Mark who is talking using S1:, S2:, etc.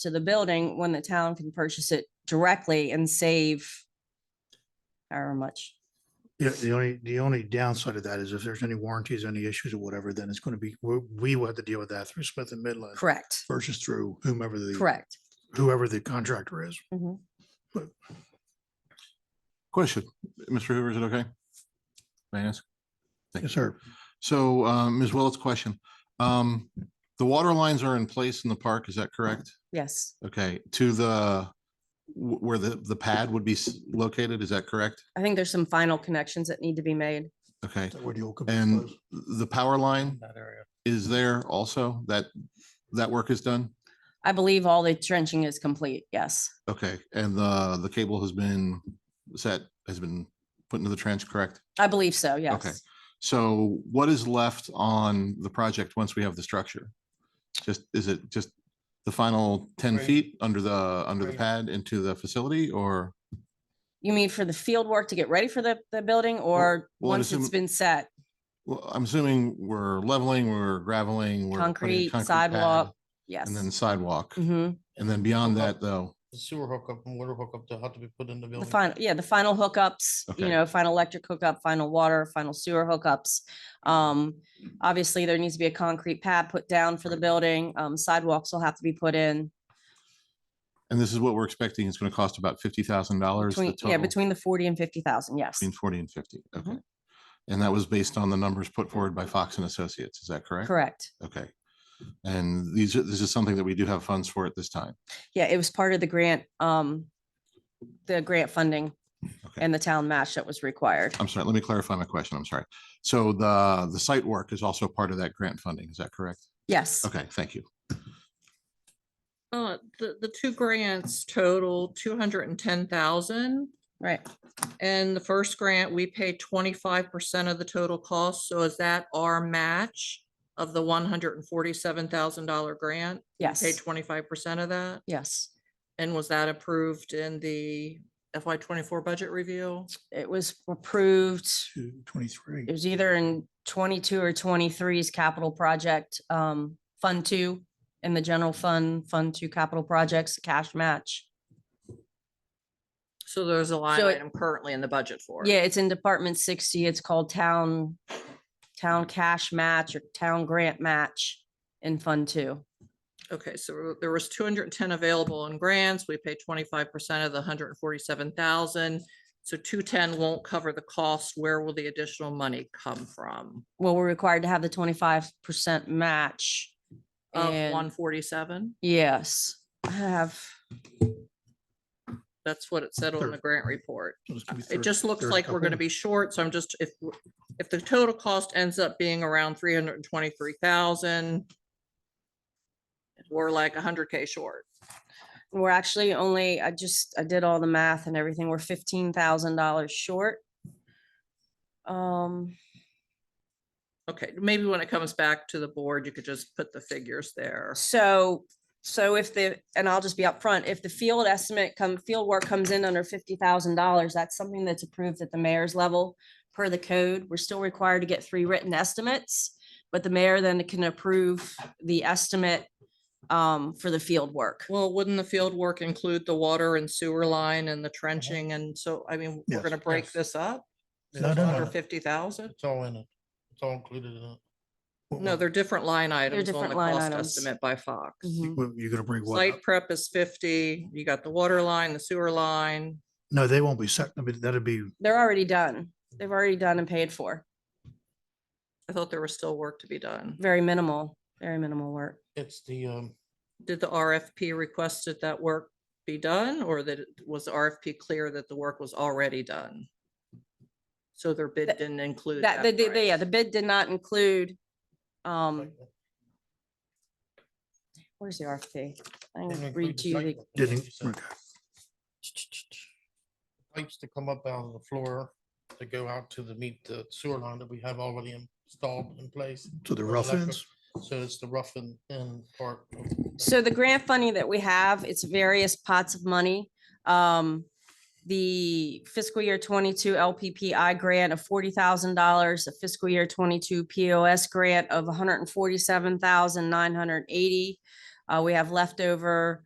S1: to the building when the town can purchase it directly and save however much.
S2: Yeah, the only, the only downside of that is if there's any warranties, any issues or whatever, then it's going to be, we, we will have to deal with that through Smith and Midland
S1: Correct,
S2: versus through whomever the,
S1: correct.
S2: whoever the contractor is.
S1: Mhm.
S3: Question, Mr. Hoover, is it okay? May I ask? Thank
S2: Yes,
S3: you.
S2: sir.
S3: So um, Ms. Willet's question, um, the water lines are in place in the park, is that correct?
S1: Yes,
S3: Okay, to the, wh- where the, the pad would be s- located, is that correct?
S1: I think there's some final connections that need to be made.
S3: Okay,
S2: Is that where the old company
S3: and
S2: was?
S3: the power line
S2: That area.
S3: is there also, that, that work is done?
S1: I believe all the trenching is complete, yes,
S3: Okay, and the, the cable has been set, has been put into the trench, correct?
S1: I believe so, yes.
S3: So what is left on the project once we have the structure? Just, is it just the final ten
S2: Right.
S3: feet under the, under the
S2: Right.
S3: pad into the facility or?
S1: You mean for the field work to get ready for the, the building or
S3: well, I'd
S1: once it's
S3: assume-
S1: been set?
S3: Well, I'm assuming we're leveling, we're graveling, we're. putting a
S1: Concrete,
S3: pad,
S1: sidewalk, Yes.
S3: And then sidewalk.
S1: Mhm.
S3: And then beyond that, though,
S4: The sewer hookup and water hookup that had to be put in the
S1: The
S4: building.
S1: final, yeah, the final hookups, you
S3: Okay.
S1: know, final electric hookup, final water, final sewer hookups. Um, obviously, there needs to be a concrete pad put down for the building. Um, sidewalks will have to be put in.
S3: and this is what we're expecting, it's gonna cost about fifty thousand dollars.
S1: Between, yeah, between the forty and fifty thousand, yes.
S3: Between forty and fifty,
S1: Mhm.
S3: okay. And that was based on the numbers put forward by Fox and Associates, is that correct?
S1: Correct.
S3: Okay. And these, are this is something that we do have funds for at this time.
S1: Yeah, it was part of the grant, um, the grant funding
S3: Okay.
S1: and the town match that was required.
S3: I'm sorry, let me clarify my question. I'm sorry. So the, the site work is also part of that grant funding, is that correct?
S1: Yes,
S3: Okay, thank you.
S5: Uh, the, the two grants total two hundred and ten thousand.
S1: right.
S5: And the first grant, we paid twenty-five percent of the total cost. So is that our match of the one hundred and forty-seven thousand dollar grant? Paid
S1: Yes,
S5: twenty-five percent of that?
S1: yes.
S5: And was that approved in the FY twenty-four budget review?
S1: It was approved.
S2: Two, twenty-three.
S1: It was either in twenty-two or 23's capital project, um, Fund Two in the general fund, Fund Two capital projects, cash match.
S5: So there's a line
S1: So it-
S5: item currently in the budget for. it.
S1: Yeah, it's in Department sixty. It's called Town, Town Cash Match or Town Grant Match in Fund Two.
S5: Okay, so there was two hundred and ten available in grants. We paid twenty-five percent of the hundred and forty-seven thousand. So two-ten won't cover the cost. Where will the additional money come from?
S1: Well, we're required to have the twenty-five percent match.
S5: Of
S1: and-
S5: one forty-seven?
S1: Yes, I have,
S5: That's what it said on the
S2: Thirty.
S5: grant report. It just looks like we're gonna be short, so I'm just, if, w- if the total cost ends up being around three hundred and twenty-three thousand, we're like hundred K short.
S1: we're actually only, I just, I did all the math and everything. We're fifteen thousand dollars short. Um,
S5: Okay, maybe when it comes back to the board, you could just put the figures there.
S1: So, so if the, and I'll just be upfront, if the field estimate come, field work comes in under fifty thousand dollars, that's something that's approved at the mayor's level per the code. We're still required to get three written estimates, but the mayor then can approve the estimate um, for the field work.
S5: Well, wouldn't the field work include the water and sewer line and the trenching? And so, I mean, we're
S2: Uh-huh. Yes,
S5: gonna break
S4: yes.
S5: this up?
S4: It's
S2: No, no,
S4: all-
S2: no,
S5: Under
S2: no.
S5: fifty thousand?
S4: It's all in it. It's all included in it.
S5: No, they're different line items on
S1: different
S5: the
S1: line
S5: cost
S1: items.
S5: estimate by Fox.
S1: Mhm.
S2: You're gonna bring what? Mm-hmm. up?
S5: Site prep is fifty, you got the water line, the sewer line.
S2: No, they won't be set. I mean, that'd be,
S1: They're already done. They've already done and paid for.
S5: I thought there was still work to be done.
S1: Very minimal, very minimal work.
S4: It's the, um,
S5: Did the RFP requested that work be done or that, it- was the RFP clear that the work was already done? So their bid
S1: That-
S5: didn't include
S1: That,
S5: that.
S1: the, the- yeah,
S5: price.
S1: the bid did not include, um, where's the RFP? I'm
S4: didn't
S1: gonna
S4: include
S1: read
S4: the
S1: to you
S4: site
S1: the
S4: work, is what
S2: didn't,
S4: you said. Pipes to come up out of the floor to go out to the meet the sewer line that we have already installed in place.
S2: to the
S4: Well,
S2: rough
S4: that could-
S2: ends.
S4: So it's the rough and thin part. of that.
S1: So the grant funding that we have, it's various pots of money. Um, the fiscal year twenty-two LPPI grant of forty thousand dollars, a fiscal year twenty-two POS grant of one hundred and forty-seven thousand nine hundred and eighty. Uh, we have leftover